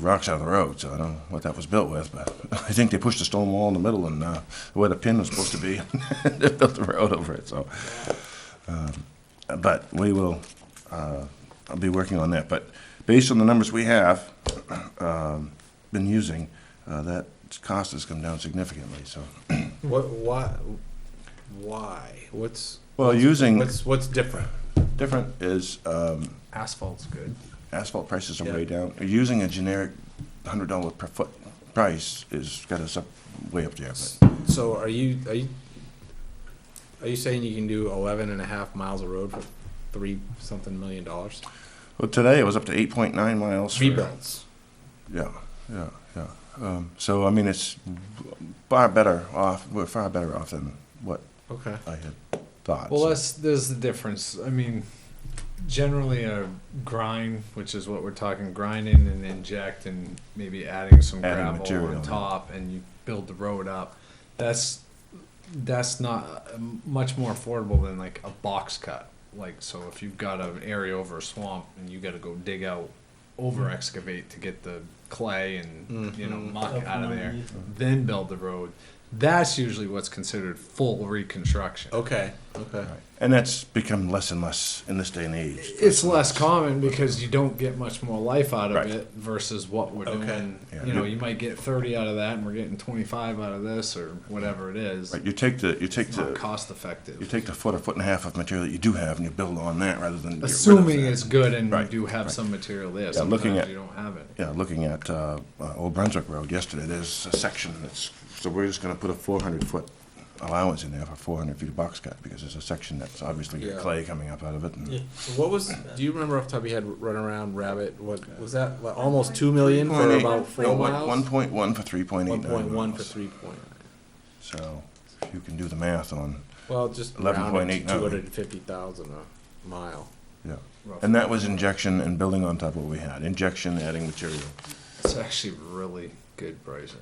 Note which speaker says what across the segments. Speaker 1: rocks out of the road, so I don't know what that was built with, but I think they pushed a stone wall in the middle and uh, where the pin was supposed to be, they built the road over it, so. Um, But we will, uh, I'll be working on that, but based on the numbers we have, um, been using, uh, that cost has come down significantly, so.
Speaker 2: What, why, why? What's,
Speaker 1: Well, using
Speaker 2: what's, what's different?
Speaker 1: different is, um,
Speaker 3: Asphalt's good.
Speaker 1: asphalt prices are way
Speaker 2: Yeah.
Speaker 1: down. Using a generic hundred dollar per foot price is got us up, way up there, but.
Speaker 2: So are you, are you, are you saying you can do eleven and a half miles of road for three something million dollars?
Speaker 1: Well, today it was up to 8.9 miles. for-
Speaker 2: Rebuilds.
Speaker 1: Yeah, yeah, yeah. Um, so, I mean, it's far better off. We're far better off than what
Speaker 2: Okay.
Speaker 1: I had thought.
Speaker 3: Well,
Speaker 1: so.
Speaker 3: that's there's the difference. I mean, generally a grind, which is what we're talking, grinding and inject, and maybe adding some
Speaker 1: Adding
Speaker 3: gravel
Speaker 1: material, yeah.
Speaker 3: on top, and you build the road up. That's that's not uh, much more affordable than like a box cut. Like so, if you've got an area over a swamp and you got to go dig out, over excavate to get the clay and you know
Speaker 2: Mhm.
Speaker 3: muck out of there, then build the road. That's usually what's considered full reconstruction.
Speaker 2: Okay, okay.
Speaker 1: Right. And that's become less and less in this day and age.
Speaker 3: it's less common because you don't get much more life out of
Speaker 1: Right.
Speaker 3: it versus what we're
Speaker 2: Okay.
Speaker 3: doing.
Speaker 1: Yeah.
Speaker 3: You know, you might get 30 out of that, and we're getting 25 out of this, or whatever it is.
Speaker 1: Right, you take the you take
Speaker 3: It's not
Speaker 1: the
Speaker 3: cost
Speaker 1: you
Speaker 3: effective.
Speaker 1: take the foot or foot and a half of material that you do have and you build on that rather than get rid of
Speaker 3: Assuming
Speaker 1: that.
Speaker 3: it's good and
Speaker 1: Right,
Speaker 3: you do have some material there.
Speaker 1: Yeah, looking
Speaker 3: Sometimes
Speaker 1: at-
Speaker 3: you don't have it.
Speaker 1: Yeah, looking at uh, uh, Old Brunswick Road yesterday, there's a section that's, so we're just going to put a 400-foot allowance in there for 400 feet of box cut, because there's a section that's obviously got
Speaker 2: Yeah.
Speaker 1: clay coming up out of it. and-
Speaker 2: So What was, do you remember off the top of your head, run around rabbit, what, was that like almost two million for
Speaker 1: 1.8.
Speaker 2: about
Speaker 1: No,
Speaker 2: four
Speaker 1: one-
Speaker 2: miles?
Speaker 1: 1.1 for 3.89
Speaker 2: One
Speaker 1: miles.
Speaker 2: point one for three point nine.
Speaker 1: So if you can do the math on,
Speaker 2: Well, just round it to
Speaker 1: 11.89.
Speaker 2: two hundred and fifty thousand a mile.
Speaker 1: yeah.
Speaker 3: roughly.
Speaker 1: And that was injection and building on top of what we had, injection, adding material.
Speaker 3: it's actually really good pricing.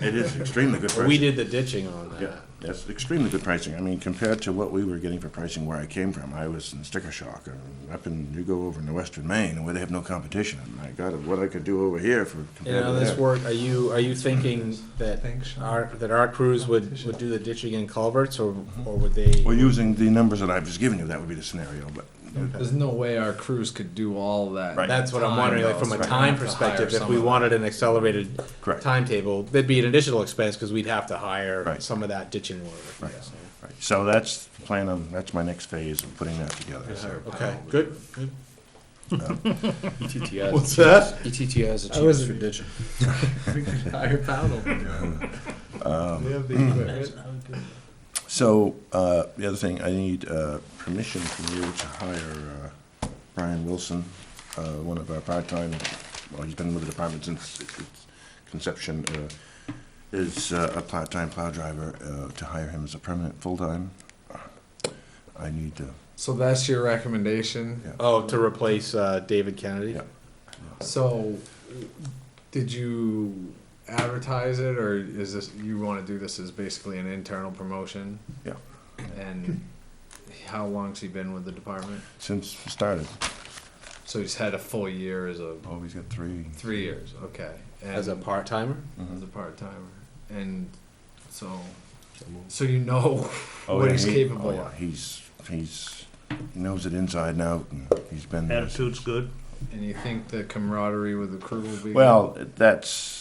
Speaker 1: It is extremely good
Speaker 2: But we
Speaker 1: pricing.
Speaker 2: did the ditching on
Speaker 1: Yeah,
Speaker 2: that.
Speaker 1: that's extremely good pricing. I mean, compared to what we were getting for pricing where I came from, I was in sticker shock. I mean, Up in, you go over into western Maine and where they have no competition, and my God, what I could do over here for
Speaker 2: You
Speaker 1: compared
Speaker 2: know,
Speaker 1: to
Speaker 2: this
Speaker 1: that.
Speaker 2: work, are you, are you thinking that
Speaker 3: Thanks, Sean.
Speaker 2: our, that our crews would, would do the ditching and culverts, or,
Speaker 3: Mm-hmm.
Speaker 2: or would they?
Speaker 1: Well, using the numbers that I've just given you, that would be the scenario, but
Speaker 3: There's no way our crews could do all that.
Speaker 1: Right.
Speaker 2: That's what I'm
Speaker 3: time,
Speaker 2: wondering, like,
Speaker 3: though,
Speaker 2: from
Speaker 3: so
Speaker 2: a
Speaker 3: we're gonna
Speaker 2: time
Speaker 3: have to hire
Speaker 2: perspective, if we
Speaker 3: someone.
Speaker 2: wanted an accelerated
Speaker 1: Correct.
Speaker 2: timetable, that'd be an additional expense, because we'd have to hire
Speaker 1: Right.
Speaker 2: some of that ditching work.
Speaker 1: Right.
Speaker 2: yeah.
Speaker 1: Right, so that's the plan, um, that's my next phase of putting that together, so.
Speaker 2: Okay,
Speaker 3: Oh,
Speaker 2: good, good.
Speaker 3: E
Speaker 4: ETTS.
Speaker 2: What's that?
Speaker 4: ETTS
Speaker 3: I was-
Speaker 4: achieves for ditching.
Speaker 3: Hire Powell.
Speaker 2: We have
Speaker 1: Um,
Speaker 2: the equipment.
Speaker 1: hmm. So, uh, the other thing, I need, uh, permission from you to hire, uh, Brian Wilson, uh, one of our part-time, well, he's been with the department since its its conception, uh, is uh, a part-time plow driver, uh, to hire him as a permanent full-time. I need to,
Speaker 3: So that's your recommendation.
Speaker 1: Yeah.
Speaker 2: Oh, to replace, uh, David Kennedy?
Speaker 1: Yeah.
Speaker 3: So, did you advertise it, or is this you want to do this as basically an internal promotion?
Speaker 1: Yeah.
Speaker 3: And how long's he been with the department?
Speaker 1: since we started,
Speaker 3: So he's had a full year as a
Speaker 1: oh, he's got three.
Speaker 3: three years. Okay. And
Speaker 2: As a part-timer?
Speaker 1: Mhm.
Speaker 3: as a part timer, and so so you know
Speaker 1: Oh,
Speaker 3: what
Speaker 1: yeah,
Speaker 3: he's
Speaker 1: he-
Speaker 3: capable
Speaker 1: oh, yeah,
Speaker 3: of,
Speaker 1: He's, he's, he knows it inside and out, and he's been. there since-
Speaker 5: Attitude's good.
Speaker 3: and you think the camaraderie with the crew will be
Speaker 1: Well, that's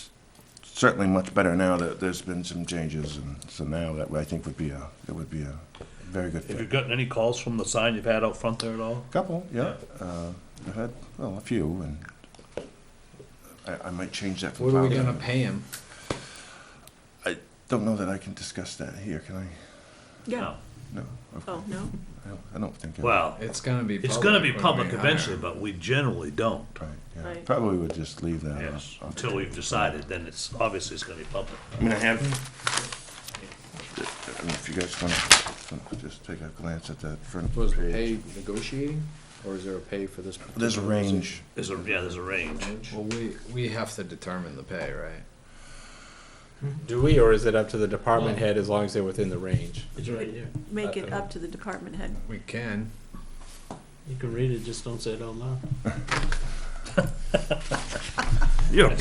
Speaker 1: certainly much better now that there's been some changes, and so now that I think would be a, it would be a very good
Speaker 5: Have you
Speaker 1: fit.
Speaker 5: gotten any calls from the sign you've had out front there at all?
Speaker 1: Couple, yeah, uh, I've had, well, a few, and I, I might change that. from
Speaker 3: What are we
Speaker 1: five
Speaker 3: gonna pay him?
Speaker 1: Don't know that I can discuss that here, can I?
Speaker 6: Yeah.
Speaker 1: No, of-
Speaker 6: Oh, no?
Speaker 1: I don't- I don't think. I-
Speaker 5: Well,
Speaker 3: It's gonna be
Speaker 5: it's gonna be
Speaker 3: when we
Speaker 5: public
Speaker 3: hire
Speaker 5: eventually,
Speaker 3: him.
Speaker 5: but we generally don't.
Speaker 1: Right, yeah,
Speaker 6: Right.
Speaker 1: probably would just leave that.
Speaker 5: Yes,
Speaker 1: off.
Speaker 5: until we've decided, then it's, obviously it's gonna be public.
Speaker 1: I mean, I have. I mean, If you guys want to just take a glance at that front
Speaker 4: Was the
Speaker 1: page.
Speaker 4: pay negotiating, or is there a pay for this?
Speaker 1: There's a range.
Speaker 5: There's a, yeah, there's a range.
Speaker 3: Well, we we have to determine the pay, right?
Speaker 2: Do we, or is it up to the department head as long as they're within the range?
Speaker 7: It's right here.
Speaker 6: Make it up to the department head.
Speaker 3: We can.
Speaker 7: You can read it, just don't say it out loud.
Speaker 5: You're a